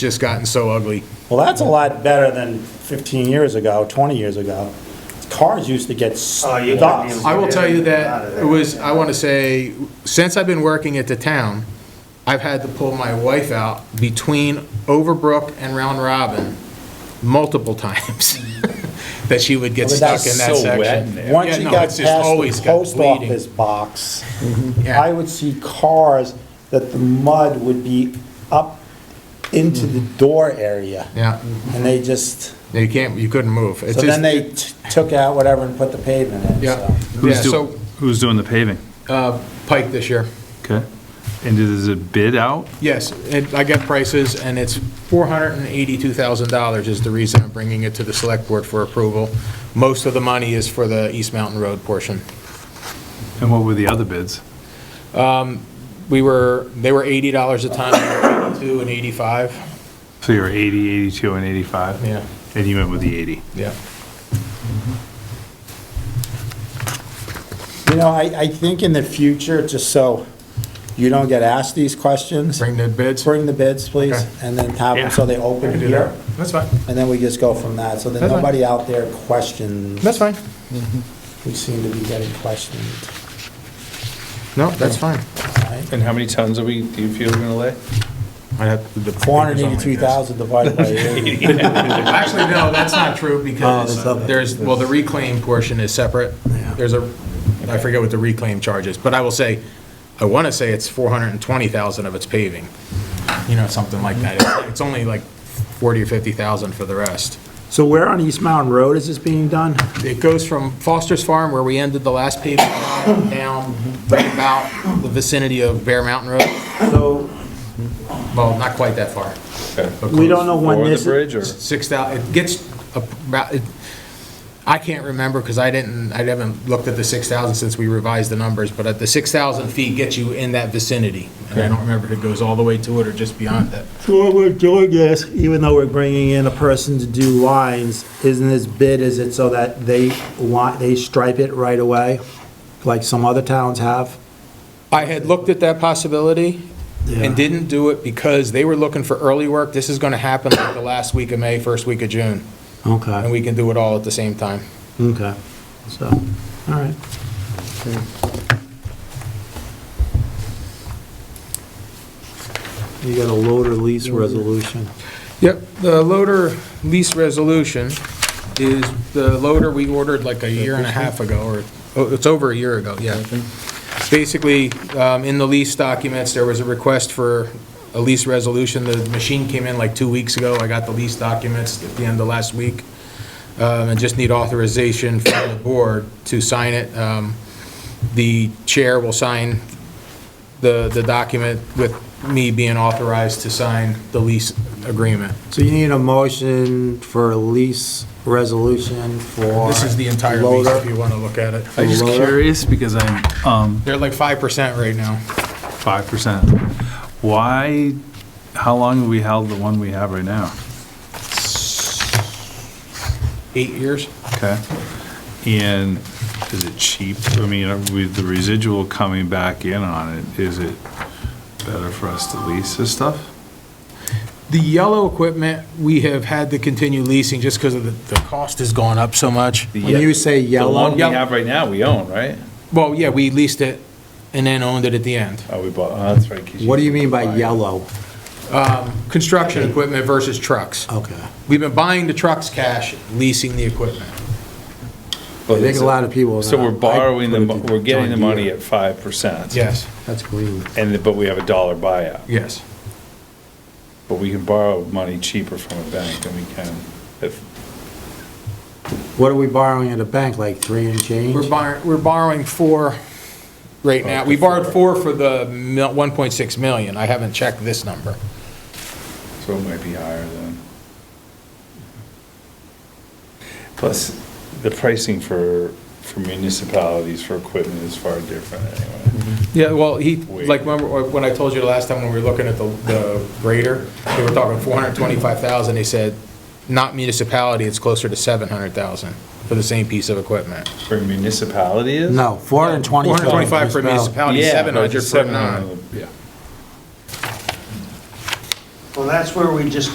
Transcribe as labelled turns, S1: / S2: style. S1: just gotten so ugly.
S2: Well, that's a lot better than 15 years ago, 20 years ago. Cars used to get
S3: Oh, you
S2: stuck.
S3: couldn't even-
S1: I will tell you
S3: Out of
S1: that
S3: there.
S1: it was, I want to say, since I've been working at the town, I've had to pull my wife out between Overbrook and Round Robin multiple times, that she would get
S2: Well,
S1: stuck
S2: that's
S1: in that
S4: so wet in
S1: section.
S4: there.
S2: Once
S1: Yeah,
S2: you
S1: no,
S2: got
S1: it's
S2: past
S1: just always
S2: the
S1: got
S2: post
S1: bleeding. Mm-hmm.
S2: office box,
S1: Yeah.
S2: I would see cars that the mud would be up into the door area.
S1: Mm-hmm.
S2: Mm-hmm.
S1: Yeah,
S2: And they just,
S1: you can't, you couldn't move. It's
S2: so then
S1: just-
S2: they t- took out whatever and put the pavement in,
S1: Yeah.
S2: so.
S1: Yeah,
S4: Who's
S1: so,
S4: doing, who's doing the paving?
S1: uh, Pike this year.
S4: Okay. And is it bid out?
S1: Yes, it- I got prices, and it's $482,000 is the reason I'm bringing it to the select board for approval. Most of the money is for the East Mountain Road portion.
S4: And what were the other bids?
S1: We were, they were $80 a ton, we were 82 and 85.
S4: So you were 80, 82, and 85?
S1: Yeah.
S4: And you went with the 80?
S1: Yeah.
S2: You know, I, I think in the future, just so you don't get asked these questions,
S1: Bring the bids?
S2: bring the bids, please,
S1: Okay.
S2: and then have
S4: Yeah.
S2: them so they open here.
S1: That's fine.
S2: And then we just go from that, so that
S1: That's fine.
S2: nobody out there questions.
S1: That's fine.
S2: We seem to be getting questioned,
S1: No, that's fine.
S2: right?
S5: And how many tons are we, do you feel we're gonna lay?
S1: I'd have to- the-
S2: Four hundred eighty-two thousand divided by eighty.
S1: Actually, no, that's not true, because
S2: that's not-
S1: there's, well, the reclaim portion is separate. There's a, I forget what the reclaim charge is, but I will say, I want to say it's 420,000 of its paving, you know, something like that. It's only like 40 or 50,000 for the rest.
S2: So where on East Mountain Road is this being done?
S1: It goes from Foster's Farm, where we ended the last paving, line, down right about the vicinity of Bear Mountain Road,
S2: So
S1: well, not quite that far. but
S2: we
S1: close.
S2: don't know when
S5: Over the
S2: this,
S5: bridge or?
S1: six thousand. it gets about, it- I can't remember, because I didn't, I haven't looked at the six thousand since we revised the numbers, but at the six thousand feet gets you in that vicinity. And I don't remember if it goes all the way to it or just beyond that.
S2: So what we're doing is, even though we're bringing in a person to do lines, isn't this bid, is it so that they want, they stripe it right away? Like some other towns have?
S1: I had looked at that possibility
S2: Yeah.
S1: and didn't do it because they were looking for early work. This is gonna happen like the last week of May, first week of June, and
S2: Okay,
S1: we can do it all at the same time.
S2: okay, so, all right. You got a loader lease resolution.
S1: Yep, the loader lease resolution is the loader we ordered like a year and a half ago, or, oh, it's over a year ago, yeah. Basically, um, in the lease documents, there was a request for a lease resolution. The machine came in like two weeks ago. I got the lease documents at the end of last week. Um, And just need authorization from the board to sign it. Um, The chair will sign the, the document with me being authorized to sign the lease agreement.
S2: So you need a motion for a lease resolution for.
S1: This is the entire lease, if
S2: loader.
S1: you want to look at it.
S4: I'm just
S2: Lower.
S4: curious because I'm, um,
S1: They're like 5% right now.
S4: 5%. Why, how long have we held the one we have right now?
S1: Eight years?
S4: Okay. And is it cheap? I mean, with the residual coming back in on it, is it better for us to lease this stuff?
S1: The yellow equipment, we have had to continue leasing just because of the, the cost has gone up so much.
S2: When you say
S5: The one
S2: yellow,
S5: we have right now, we own, right?
S1: Well, yeah, we leased it and then owned it at the end.
S5: Oh, we bought, oh, that's right. 'cause
S2: what do you mean by
S5: buy it.
S2: yellow?
S1: Construction equipment versus trucks.
S2: Okay.
S1: We've been buying the trucks cash, leasing the equipment.
S5: But
S2: I think
S5: it's-
S2: a lot of people. are
S5: So
S2: not.
S5: we're
S2: I
S5: borrowing the,
S2: put
S5: mo-
S2: it to
S5: we're getting the
S2: John
S5: money
S2: Deere.
S5: at five percent.
S1: Yes,
S2: That's green.
S5: And, the- but we have a dollar buyout,
S1: yes.
S5: but we can borrow money cheaper from a bank than we can if,
S2: What are we borrowing at a bank, like three and change?
S1: We're borrowing, we're borrowing four right now. We borrowed four for the mil- 1.6 million. I haven't checked this number.
S5: so it might be higher than. Plus, the pricing for, for municipalities for equipment is far different anyway.
S2: Mm-hmm.
S1: Yeah, well, he,
S5: Wait.
S1: like, remember when I told you the last time when we were looking at the, the grader, they were talking four hundred twenty-five thousand, they said, not municipality, it's closer to seven hundred thousand for the same piece of equipment.
S5: For municipality is?
S2: No, four hundred and twenty.
S1: Four hundred twenty-five for municipality,
S5: Yeah,
S1: seven
S5: but
S1: hundred
S5: it's
S1: for non.
S5: Yeah.
S3: Well, that's where we just